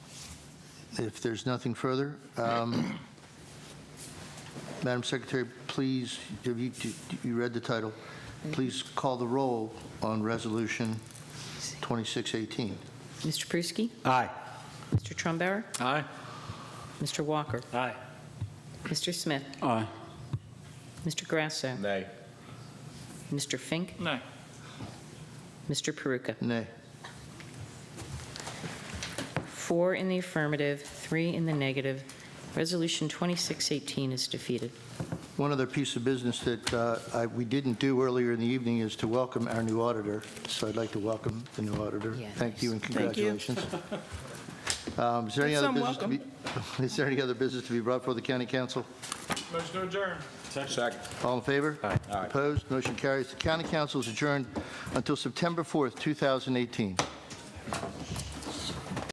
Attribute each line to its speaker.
Speaker 1: If there's nothing further, um, Madam Secretary, please, have you, do- do you read the title? Please call the roll on Resolution 2618.
Speaker 2: Mr. Pruski,
Speaker 3: Aye.
Speaker 2: Mr. Trumbauer,
Speaker 3: Aye.
Speaker 2: Mr. Walker,
Speaker 3: Aye.
Speaker 2: Mr. Smith,
Speaker 3: Aye.
Speaker 2: Mr. Grasso,
Speaker 3: Nay.
Speaker 2: Mr. Fink,
Speaker 3: Nay.
Speaker 2: Mr. Peruka.
Speaker 1: Nay.
Speaker 2: Four in the affirmative, three in the negative. Resolution 2618 is defeated.
Speaker 1: One other piece of business that uh, I- we didn't do earlier in the evening is to welcome our new auditor. So I'd like to welcome the new auditor.
Speaker 2: Yeah,
Speaker 1: Thank you and
Speaker 4: Thank you.
Speaker 1: congratulations. Um, Is there any
Speaker 4: That's
Speaker 1: other
Speaker 4: some
Speaker 1: business to be, is there any other business to be brought before the county council?
Speaker 5: Motion to adjourn.
Speaker 3: Second.
Speaker 1: All in favor?
Speaker 3: Aye.
Speaker 1: Opposed? Motion carries. The county council is adjourned until September 4th, 2018.